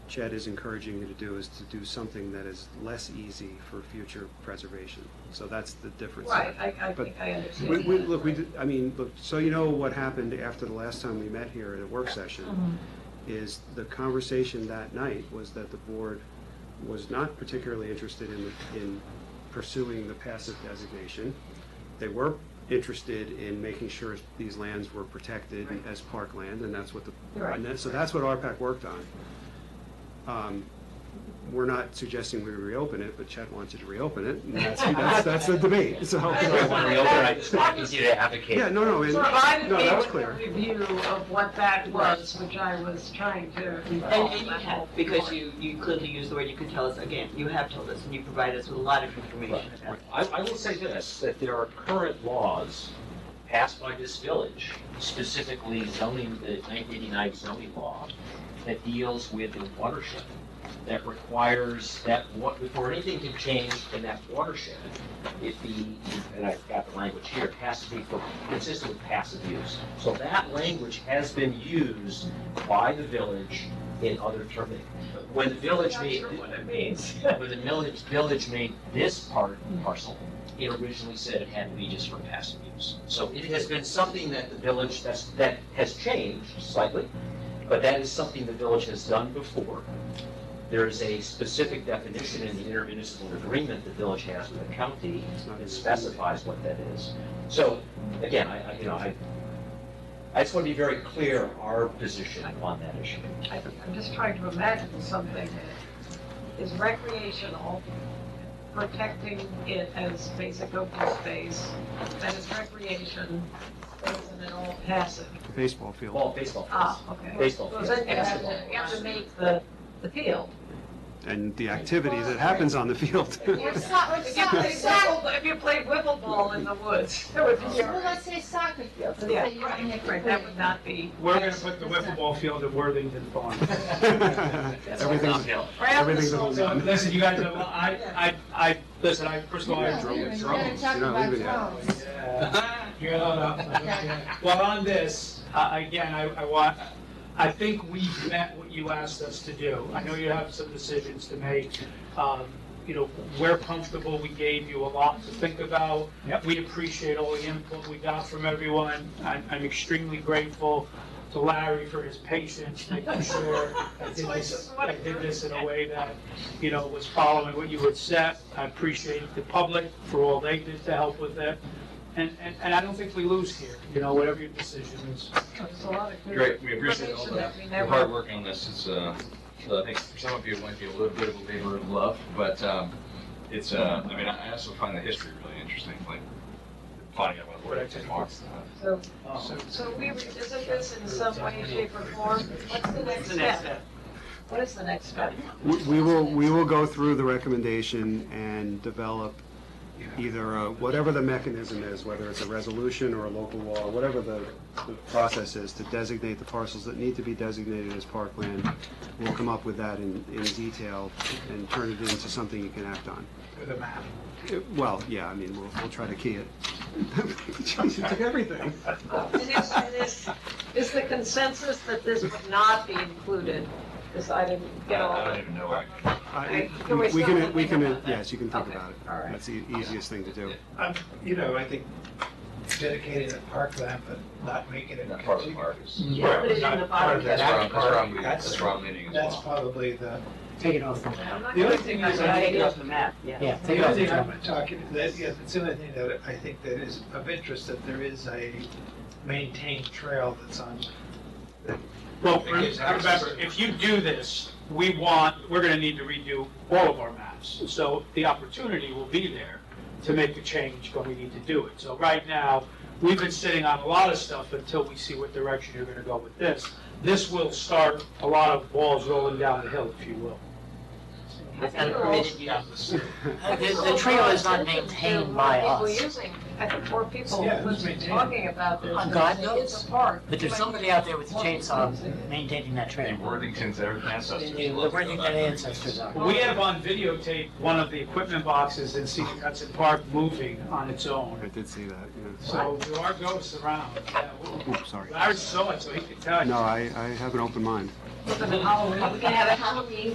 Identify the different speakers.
Speaker 1: Chad is encouraging you to do is to do something that is less easy for future preservation. So that's the difference.
Speaker 2: Right, I, I
Speaker 1: But
Speaker 2: think I understand.
Speaker 1: We, we,
Speaker 2: that.
Speaker 1: look, we, did- I mean, look, so you know what happened after the last time we met here at a work session
Speaker 2: Mhm.
Speaker 1: is the conversation that night was that the board was not particularly interested in, in pursuing the passive designation. They were interested in making sure these lands were protected
Speaker 2: Right.
Speaker 1: as parkland, and that's what the,
Speaker 2: Right.
Speaker 1: and that- so that's what RPAC worked on. Um, We're not suggesting we reopen it, but Chet wanted to reopen it, and that's, that's, that's the debate, so.
Speaker 2: I
Speaker 3: I don't want to reopen, I just want you to advocate.
Speaker 1: Yeah, no, no, and,
Speaker 2: Provided
Speaker 1: no,
Speaker 2: me
Speaker 1: that was
Speaker 2: with a
Speaker 1: clear.
Speaker 2: review of what that was, which I was trying to.
Speaker 4: And and you have, because you, you clearly use the word, you could tell us again, you have told us, and you provide us with a lot of information about it.
Speaker 3: I, I will say this, that there are current laws passed by this village, specifically zoning, the nineteen eighty-nine zoning law, that deals with the watershed, that requires that, wa- before anything can change in that watershed, it be, and I've got the language here, it has to be for- consistent with passive use. So that language has been used by the village in other terms. When the village
Speaker 2: Not
Speaker 3: made,
Speaker 2: sure what it means.
Speaker 3: when the village, village made this part parcel, it originally said it had to be just for passive use. So it has been something that the village, that's, that has changed slightly, but that is something the village has done before. There is a specific definition in the intermunicipal agreement the village has with the county
Speaker 1: It's not-
Speaker 3: that specifies what that is. So, again, I, I- you know, I, I just want to be very clear our position on that issue.
Speaker 2: I- I'm just trying to imagine something that is recreational, protecting it as basic open space, that is recreation, isn't at all passive.
Speaker 1: Baseball field,
Speaker 3: Well, baseball fields.
Speaker 2: Ah, okay.
Speaker 3: Baseball
Speaker 2: So then you have
Speaker 3: field,
Speaker 2: to, you have to make the, the field.
Speaker 1: and the activity that happens on the field.
Speaker 5: Or so- or
Speaker 2: If you played
Speaker 5: so-
Speaker 2: wiffle, if you played wiffle ball in the woods, that would be.
Speaker 5: Well, let's say soccer field, so
Speaker 2: Yeah,
Speaker 5: that you don't
Speaker 2: right,
Speaker 5: have to
Speaker 2: right,
Speaker 5: put
Speaker 2: that
Speaker 5: it.
Speaker 2: would not be.
Speaker 6: We're gonna put the wiffle ball field at Worthington Farm.
Speaker 3: That's all
Speaker 1: Everything's,
Speaker 3: downhill.
Speaker 1: everything's a whole
Speaker 6: So,
Speaker 1: lot.
Speaker 6: listen, you guys, know, I, I, I, listen, I, first of all, I
Speaker 5: Yeah,
Speaker 6: drove
Speaker 5: you're
Speaker 6: it.
Speaker 5: gonna talk
Speaker 1: You're not
Speaker 5: about
Speaker 1: leaving yet.
Speaker 5: drones.
Speaker 6: Yeah. You're not up. Well, on this, uh, again, I, I want, I think we met what you asked us to do. I know you have some decisions to make. Um, You know, we're comfortable, we gave you a lot to think about. We appreciate all the input we got from everyone. I'm, I'm extremely grateful to Larry for his patience, making sure I did this, I did this in a way that, you know, was following what you had set. I appreciate the public for all they did to help with it. And, and, and I don't think we lose here, you know, whatever your decision is.
Speaker 2: There's a lot of good
Speaker 7: Great, we appreciate all
Speaker 2: information
Speaker 7: the
Speaker 2: that we
Speaker 7: the
Speaker 2: never-
Speaker 7: hard work on this. It's, uh, I think for some of you, it might be a little bit of a labor of love, but um, it's, uh, I mean, I also find the history really interesting, like finding out what Worthington Farms.
Speaker 2: So,
Speaker 8: Oh,
Speaker 6: Um,
Speaker 2: so we revisit this in some way, shape, or form. What's the next
Speaker 4: It's the
Speaker 2: step?
Speaker 4: next step.
Speaker 2: What is the next step?
Speaker 1: We we will, we will go through the recommendation and develop either, a- whatever the mechanism is, whether it's a resolution or a local law, whatever the the process is to designate the parcels that need to be designated as parkland. We'll come up with that in, in detail and turn it into something you can act on.
Speaker 6: With a map.
Speaker 1: Uh, Well, yeah, I mean, we'll, we'll try to key it. Change it to everything.
Speaker 2: And is, and is, is the consensus that this would not be included? Because I didn't
Speaker 7: Uh, I
Speaker 2: get all
Speaker 7: don't
Speaker 2: that.
Speaker 7: even know. I-
Speaker 1: I-
Speaker 2: Can we
Speaker 1: Uh, We
Speaker 2: still
Speaker 1: can, we
Speaker 2: think
Speaker 1: can,
Speaker 2: about that?
Speaker 1: yes, you can think
Speaker 2: Okay,
Speaker 1: about it.
Speaker 2: all right.
Speaker 1: That's the easiest thing to do.
Speaker 8: I'm, you know, I think dedicating a parkland, but not making it.
Speaker 7: Not part of the park.
Speaker 4: Yeah, put it in the bottom.
Speaker 7: That's where I'm, that's where I'm,
Speaker 8: That's-
Speaker 7: that's where I'm leaning as
Speaker 8: That's
Speaker 7: well.
Speaker 8: probably the,
Speaker 4: Take it off the
Speaker 2: I'm
Speaker 4: map.
Speaker 2: not
Speaker 8: The only
Speaker 2: gonna-
Speaker 8: thing
Speaker 4: Take
Speaker 8: is I
Speaker 4: it
Speaker 8: think-
Speaker 4: off the map, yeah.
Speaker 8: the only thing I'm talking, that, yeah, it's the only thing that I think that is of interest, that there is a maintained trail that's on.
Speaker 6: Well, remember, if you do this, we want, we're gonna need to redo all of our maps. So the opportunity will be there to make a change when we need to do it. So right now, we've been sitting on a lot of stuff until we see what direction you're gonna go with this. This will start a lot of balls rolling down the hill, if you will.
Speaker 4: It's not a permitted use.
Speaker 2: I think
Speaker 4: The- the trail is not
Speaker 2: there's
Speaker 4: maintained
Speaker 2: more
Speaker 4: by
Speaker 2: people
Speaker 4: us.
Speaker 2: using- I think more people
Speaker 8: Yeah, it's
Speaker 2: was
Speaker 8: maintained.
Speaker 2: talking about this.
Speaker 4: Oh, God
Speaker 2: It's
Speaker 4: knows.
Speaker 2: a park.
Speaker 4: But there's somebody out there with a chainsaw maintaining that
Speaker 7: The
Speaker 4: trail.
Speaker 7: Worthington's ancestors.
Speaker 4: The working that ancestors are.
Speaker 6: We have on videotape one of the equipment boxes in Cedar Hudson Park moving on its
Speaker 1: I
Speaker 6: own.
Speaker 1: did see that, yeah.
Speaker 6: So there are ghosts around. Yeah,
Speaker 1: Oops, sorry.
Speaker 6: Larry saw it, so he could tell you.
Speaker 1: No, I, I have an open mind.
Speaker 9: Put them in Halloween.
Speaker 2: Are we gonna have a Halloween